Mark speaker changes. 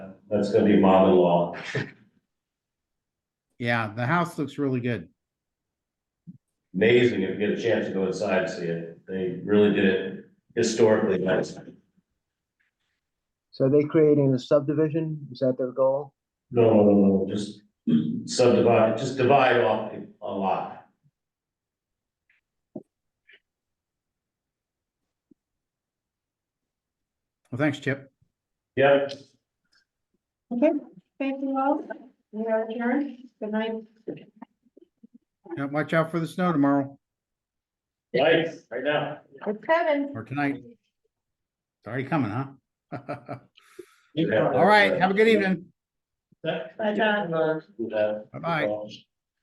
Speaker 1: That's gonna be mother-in-law.
Speaker 2: Yeah, the house looks really good.
Speaker 1: Amazing if you get a chance to go inside and see it. They really did it historically nice.
Speaker 3: So they creating a subdivision? Is that their goal?
Speaker 1: No, no, no, no, just subdivide, just divide off a lot.
Speaker 2: Well, thanks, Chip.
Speaker 1: Yep.
Speaker 4: Okay, thank you all. We are adjourned. Good night.
Speaker 2: Now, Watch out for the snow tomorrow
Speaker 1: Right, right now.
Speaker 4: It's seven.
Speaker 2: or tonight. It's already coming, huh? All right, have a good evening.
Speaker 4: Bye, John.
Speaker 2: Bye-bye.